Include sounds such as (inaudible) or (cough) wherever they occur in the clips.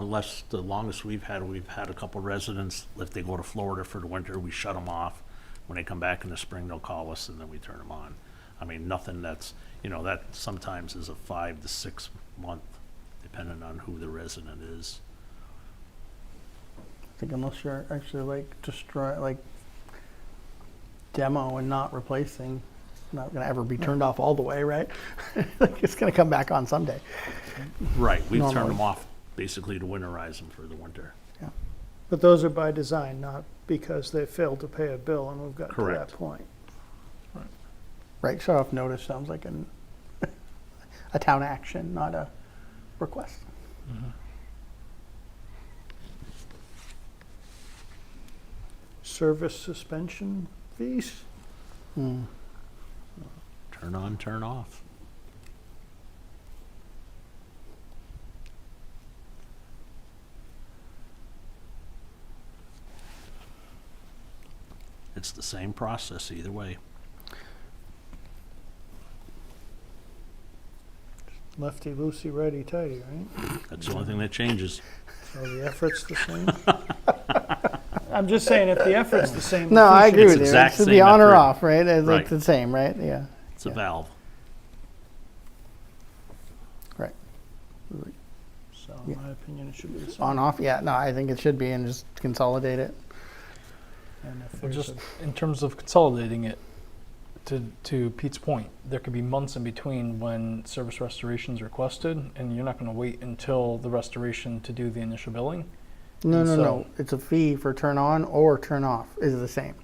unless, the longest we've had, we've had a couple residents, if they go to Florida for the winter, we shut them off. When they come back in the spring, they'll call us and then we turn them on. I mean, nothing that's, you know, that sometimes is a five to six month, depending on who the resident is. I think unless you're actually like destroy, like demo and not replacing, it's not gonna ever be turned off all the way, right? (laughs) Like, It's gonna come back on someday. Right, we've turned them Normally. off basically to winterize them for the winter. But those are by design, not because they failed to pay a bill and we've got to that Correct. point. Right, shut off notice sounds like an, a town action, not a request. Service suspension fees? Hmm. Turn on, turn off. It's the same process either way. Lefty loosey, righty tighty, right? That's the only thing that changes. So the effort's the same? I'm just saying, if the effort's the same. the No, I fee agree should- It's with you. exact It should be same on or effort. off, right? It's like Right. the same, right? Yeah. It's a Yeah. valve. So Yeah. in my opinion, it should be the same. On, off, yeah, no, I think it should be and just consolidate it. And if Well, there's just a- in terms of consolidating it, to, to Pete's point, there could be months in between when service restoration is requested, and you're not going to wait until the restoration to do the initial billing. No, And no, so- no, it's a fee for turn on or turn off is the same,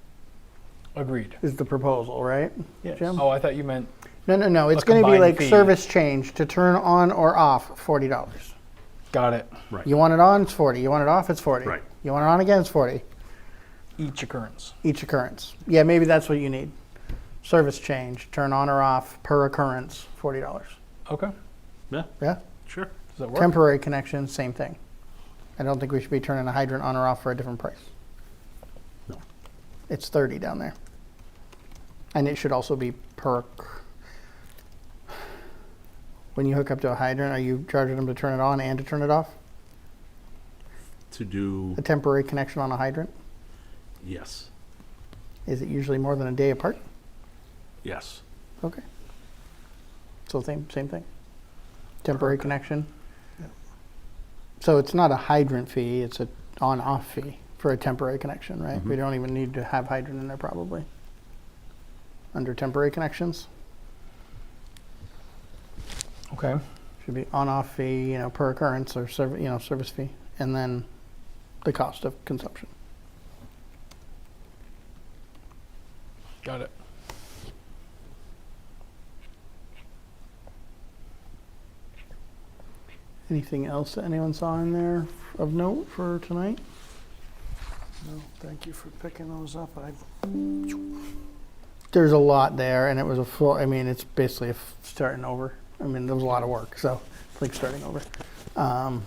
Agreed. is the proposal, right? Yes. Jim? Oh, I thought you meant No, no, no. It's A going to be combined like fee. service change to turn on or off, forty dollars. got it. You want it on, it's forty. You want it off, it's forty. Right. You want it on again, it's forty. Each occurrence. Each occurrence. Yeah, maybe that's what you need. Service change, turn on or off per occurrence, forty dollars. Okay. Does Yeah, Yeah. sure. that work? Temporary connection, same thing. I don't think we should be turning a hydrant on or off for a different price. No. It's thirty down there. And it should also be per. When you hook up to a hydrant, are you charging them to turn it on and to turn it off? To do, a temporary connection on a hydrant? yes, Is it usually more than a day apart? yes, Okay. So same, same thing? Temporary connection? Yeah. So it's not a hydrant fee, it's a on-off fee for a temporary connection, right? We Mhm. don't even need to have hydrant in there probably. Under temporary connections, Okay. should be on-off fee, you know, per occurrence or serv, you know, service fee, and then the cost of consumption. Got it. Anything else that anyone saw in there of note for tonight? No, thank you for picking those up. I there's a lot there, and it was a full. I mean, it's basically a f- starting over. I mean, there was a lot of work, so it's like starting over. Um,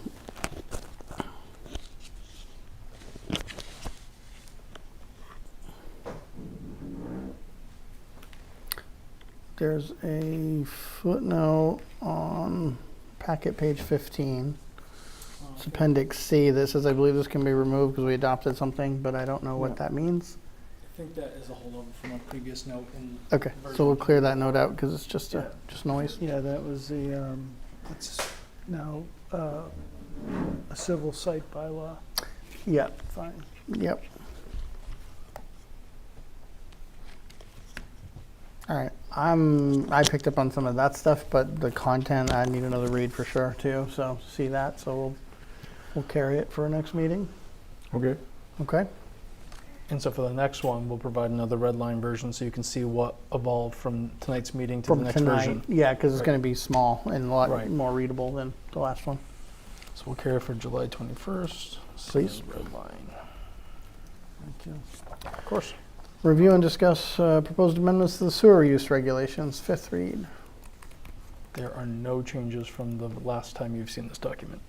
there's a footnote on packet page 15. It's appendix C that says, I believe this can be removed because we adopted something, but I don't know what Yeah. that means. I think that is a holdover from a previous note. In Okay, so we'll clear that note out because it's just, Yeah. a just noise. Yeah, that was the, um, it's now, uh, a civil site bylaw Yep, fine. yep. All right, I'm, I picked up on some of that stuff, but the content, I need another read for sure too, so see that, so we'll, we'll carry it for our next meeting, okay. okay? And so for the next one, we'll provide another red line version so you can see what evolved from tonight's meeting to From the next tonight. version. Yeah, because it's Right. gonna be small and a lot Right. more readable than the last one. So we'll carry it for July 21st. Please. Red line. Thank you. Of course. Review and discuss uh, proposed amendments to the sewer use regulations, fifth read. There are no changes from the last time you've seen this document.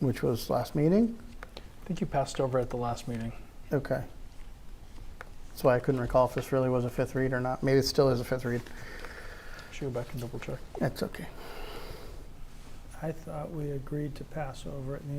Which was last meeting? I think you passed over at the last meeting. Okay. That's why I couldn't recall if this really was a fifth read or not. Maybe it still is a fifth read. Should go back and double check. That's okay. I I thought we agreed to pass over it in the